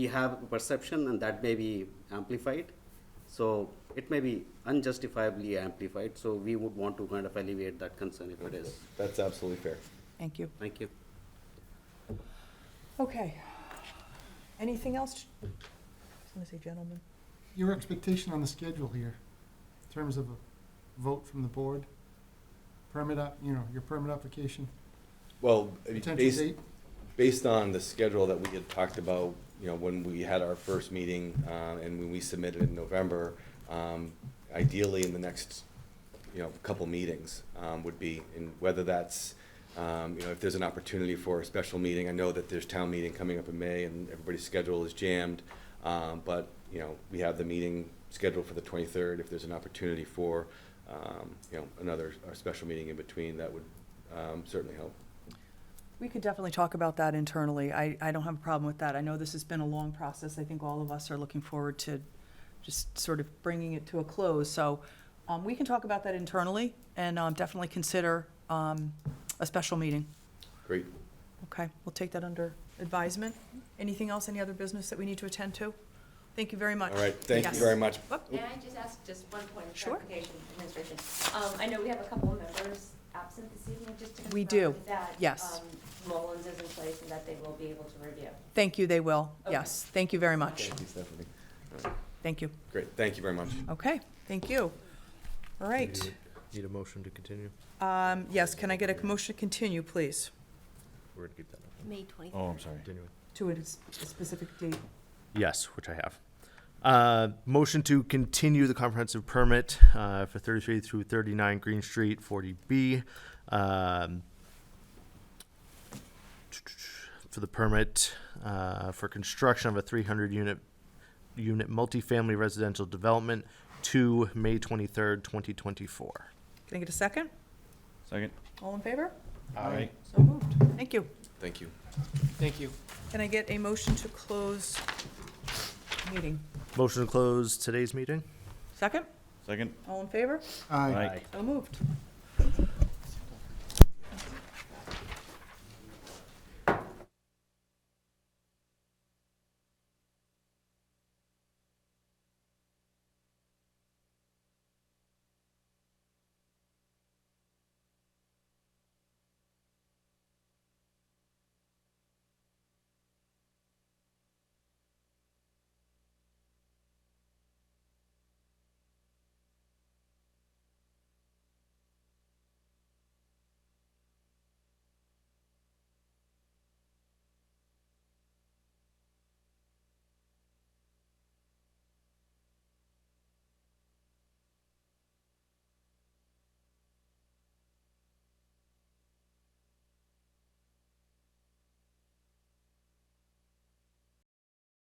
we have a perception and that may be amplified. So it may be unjustifiably amplified, so we would want to kind of alleviate that concern if it is. That's absolutely fair. Thank you. Thank you. Okay. Anything else? I was gonna say gentlemen. Your expectation on the schedule here, in terms of a vote from the board, permit up, you know, your permit application, Well, I mean, potential based, date? based on the schedule that we had talked about, you know, when we had our first meeting, uh, and when we submitted in November, um, ideally in the next, you know, couple meetings, um, would be, and whether that's, um, you know, if there's an opportunity for a special meeting, I know that there's town meeting coming up in May and everybody's schedule is jammed, um, but, you know, we have the meeting scheduled for the twenty-third, if there's an opportunity for, um, you know, another, or special meeting in between, that would, um, certainly help. We could definitely talk about that internally. I, I don't have a problem with that. I know this has been a long process. I think all of us are looking forward to just sort of bringing it to a close. So um, we can talk about that internally and um, definitely consider um, a special meeting. Great. Okay, we'll take that under advisement. Anything else, any other business that we need to attend to? Thank you very much. All right, thank you Yes. very much. Whoop. May I just ask just one point of Sure. clarification, administration? Um, I know we have a couple of members absent this evening, just to confirm. We do. That. Yes. um, Mullins is in place and that they will be able to review. Thank you, they will. Okay. Yes, thank you very much. Thank you, Stephanie. Thank you. Great, thank you very much. Okay, thank you. All right. Need a- Need a motion to continue? Um, Yes, can I get a motion to continue, please? We're gonna keep that up. May 20th. Oh, I'm sorry. Continuing. To a s- a specific date. Yes, which I have. Uh, motion to continue the comprehensive permit, uh, for thirty-three through thirty-nine Green Street, forty B. Um, for the permit, uh, for construction of a three hundred unit, unit multifamily residential development to May twenty-third, twenty twenty-four. Can I get a second? Second. All in favor? Aye. So moved. Thank you. Thank you. Thank you. Can I get a motion to close meeting? Motion to close today's meeting? Second? Second. All in favor? Aye. So moved.